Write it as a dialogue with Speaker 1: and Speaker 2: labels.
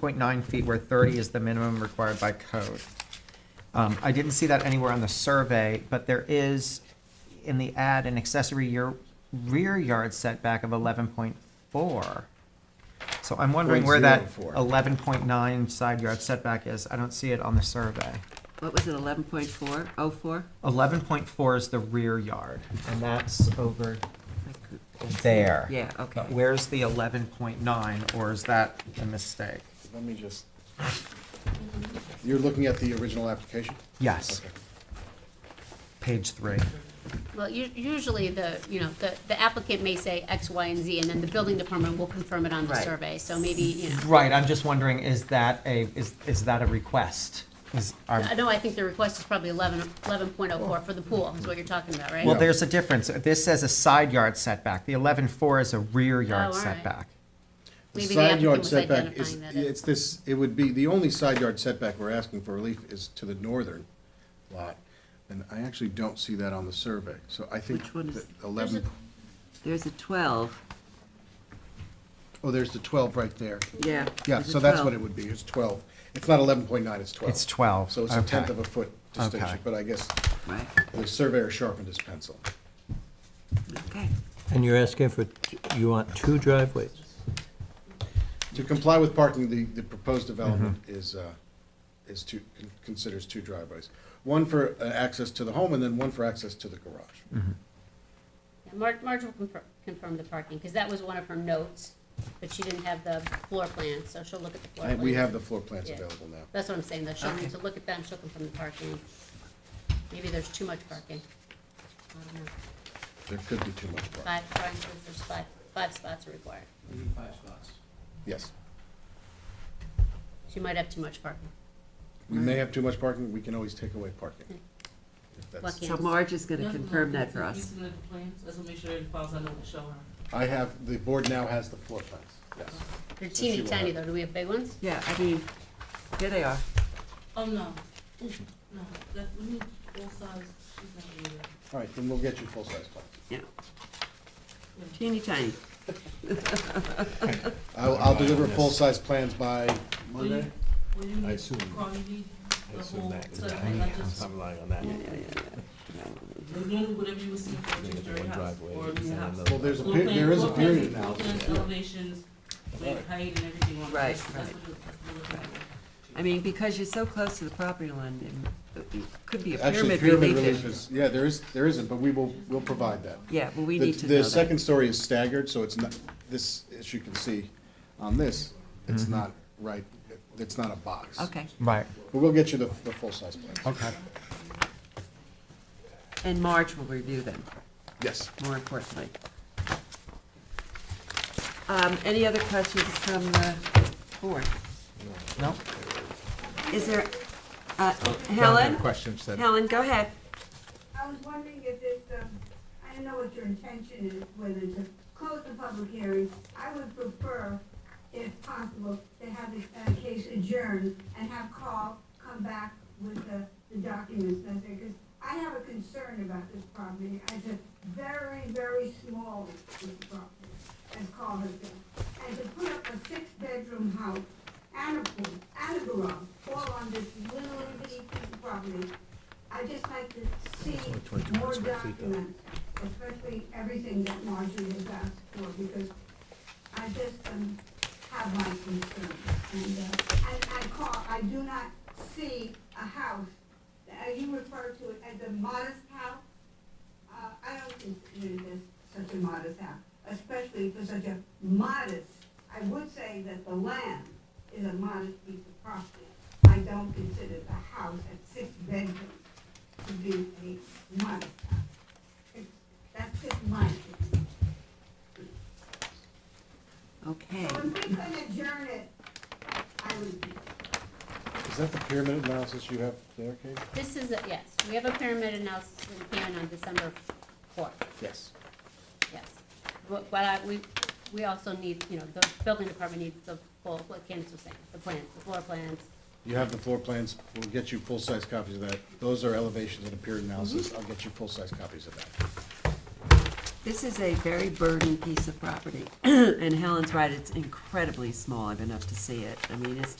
Speaker 1: 0.9 feet where 30 is the minimum required by code. Um, I didn't see that anywhere on the survey, but there is in the ad an accessory year, rear yard setback of 11.4. So I'm wondering where that
Speaker 2: 0.04.
Speaker 1: 11.9 side yard setback is. I don't see it on the survey.
Speaker 3: What was it, eleven point four, oh four?
Speaker 1: 11.4 is the rear yard, and that's over there.
Speaker 3: Yeah, okay.
Speaker 1: But where's the 11.9, or is that a mistake?
Speaker 2: Let me just, you're looking at the original application?
Speaker 1: Yes,
Speaker 2: Okay.
Speaker 1: page three.
Speaker 4: Well, u- usually the, you know, the the applicant may say X, Y, and Z, and then the building department will confirm it on the
Speaker 3: Right.
Speaker 4: survey, so maybe, you know.
Speaker 1: Right, I'm just wondering, is that a, is, is that a request? Is, are,
Speaker 4: I know, I think the request is probably eleven, eleven point oh four for the pool, is what you're talking about, right?
Speaker 1: well, there's a difference. This says a side yard setback. The eleven-four is a rear yard
Speaker 4: Oh, all right.
Speaker 1: setback.
Speaker 2: The
Speaker 4: Maybe the
Speaker 2: side yard
Speaker 4: applicant was
Speaker 2: setback is-
Speaker 4: identifying that as-
Speaker 2: It's this, it would be, the only side yard setback we're asking for relief is to the northern lot. And I actually don't see that on the survey, so I think
Speaker 3: Which one is-
Speaker 2: that eleven,
Speaker 4: There's
Speaker 3: There's a twelve,
Speaker 2: oh, there's the twelve right there.
Speaker 3: yeah.
Speaker 2: Yeah,
Speaker 3: there's a
Speaker 2: so that's what
Speaker 3: 12.
Speaker 2: it would be, it's twelve. It's not eleven point nine, it's twelve.
Speaker 1: It's 12,
Speaker 2: So it's a tenth
Speaker 1: okay.
Speaker 2: of a foot distinction,
Speaker 1: Okay.
Speaker 2: but I guess
Speaker 3: Right,
Speaker 2: the surveyor sharpened his pencil.
Speaker 3: okay.
Speaker 5: And you're asking for, you want two driveways?
Speaker 2: To comply with parking, the, the proposed development is, uh, is two, con- considers two driveways. One for uh, access to the home and then one for access to the garage.
Speaker 4: Marge, Marge will confirm, confirm the parking, because that was one of her notes, but she didn't have the floor plan, so she'll look at the floor
Speaker 2: I-
Speaker 4: plan.
Speaker 2: We have the floor plans
Speaker 4: Yeah.
Speaker 2: available now.
Speaker 4: That's what I'm saying, though, she'll
Speaker 3: Okay.
Speaker 4: need to look at them, she'll confirm the parking. Maybe there's too much parking. I don't know.
Speaker 2: There could be too much parking.
Speaker 4: Five, Brian says there's five, five spots are required.
Speaker 2: Yes.
Speaker 4: She might have too much parking.
Speaker 2: We may have too much parking, we can always take away parking. If that's-
Speaker 4: Lucky.
Speaker 3: So Marge is gonna
Speaker 6: Yeah,
Speaker 3: confirm
Speaker 6: no,
Speaker 3: that for
Speaker 6: He's
Speaker 3: us.
Speaker 6: gonna plan, so let's make sure it falls under what show her.
Speaker 2: I have, the board now has the floor plans, yes.
Speaker 4: They're
Speaker 2: she
Speaker 4: teeny
Speaker 2: will
Speaker 4: tiny
Speaker 2: have-
Speaker 4: though, do we have big ones?
Speaker 3: Yeah, I mean, here they are.
Speaker 6: Oh, no, no, that, we need full size, she's not really there.
Speaker 2: All right, then we'll get you full-size plans.
Speaker 3: Yeah. Teeny tiny.
Speaker 2: I'll, I'll deliver full-size plans by
Speaker 6: Will
Speaker 2: Monday.
Speaker 6: you- Will you
Speaker 5: I
Speaker 6: need,
Speaker 5: assume-
Speaker 6: Carl, you need the whole set of
Speaker 5: I'm
Speaker 6: like, just,
Speaker 5: relying on that.
Speaker 6: we're doing whatever you would see for a two-story
Speaker 5: one
Speaker 6: house
Speaker 5: driveway
Speaker 6: or a
Speaker 5: and
Speaker 6: new house.
Speaker 5: another-
Speaker 2: Well, there's a,
Speaker 6: Floor
Speaker 2: pe-
Speaker 6: plan-
Speaker 2: there is a
Speaker 6: floor plans,
Speaker 2: period
Speaker 6: floor
Speaker 2: analysis.
Speaker 6: plans, Elevations, with height and everything on it.
Speaker 3: Right,
Speaker 6: That's-
Speaker 3: right.
Speaker 6: That's what it- that's what we're looking at.
Speaker 3: I mean, because you're so close to the property line, it could be a
Speaker 2: Actually,
Speaker 3: pyramid
Speaker 2: pyramid
Speaker 3: relief.
Speaker 2: relief
Speaker 3: issue.
Speaker 2: is, yeah, there is, there isn't, but we will, we'll provide that.
Speaker 3: Yeah, well, we
Speaker 2: The-
Speaker 3: need to know
Speaker 2: The
Speaker 3: that.
Speaker 2: second story is staggered, so it's not, this, as you can see on this, it's not right, it's not a box.
Speaker 3: Okay,
Speaker 1: Right,
Speaker 2: But we'll get you the, the full-size plans.
Speaker 1: okay.
Speaker 3: and Marge will review them,
Speaker 2: Yes.
Speaker 3: more importantly. Um, any other questions from the board?
Speaker 1: No,
Speaker 3: Is there, uh, Helen?
Speaker 7: Questions that
Speaker 3: Helen, go ahead.
Speaker 8: I was wondering if this, um, I don't know what your intention is, whether to close the public hearing. I would prefer, if possible, to have the uh, case adjourned and have Carl come back with the, the documents necessary, because I have a concern about this property. It's a very, very small, this property, as Carl has been. And to put up a six-bedroom house and a pool and a garage, all on this little, bitty piece of property, I just like to see more documents, especially everything that Marjorie has asked for, because I just, um, have my concerns. And, uh, and I call, I do not see a house, as you refer to it as a modest house. Uh, I don't consider this such a modest house, especially for such a modest, I would say that the land is a modest piece of property. I don't consider the house at six bedrooms to be a modest house. It's- That's just my opinion.
Speaker 3: Okay.
Speaker 8: So if we could adjourn it, I would be.
Speaker 2: Is that the pyramid analysis you have there, Kate?
Speaker 4: This is, a- yes, we have a pyramid analysis in Canaan on December fourth,
Speaker 2: Yes.
Speaker 4: yes. But, but I, we, we also need, you know, the building department needs the full, what Candace was saying, the plans, the floor plans.
Speaker 2: You have the floor plans, we'll get you full-size copies
Speaker 3: Mm-hmm.
Speaker 2: of that. Those are elevations and a period analysis, I'll get you full-size copies of that.
Speaker 3: This is a very burdened piece of property, and Helen's right, it's incredibly small, I've been up to see it. I mean, it's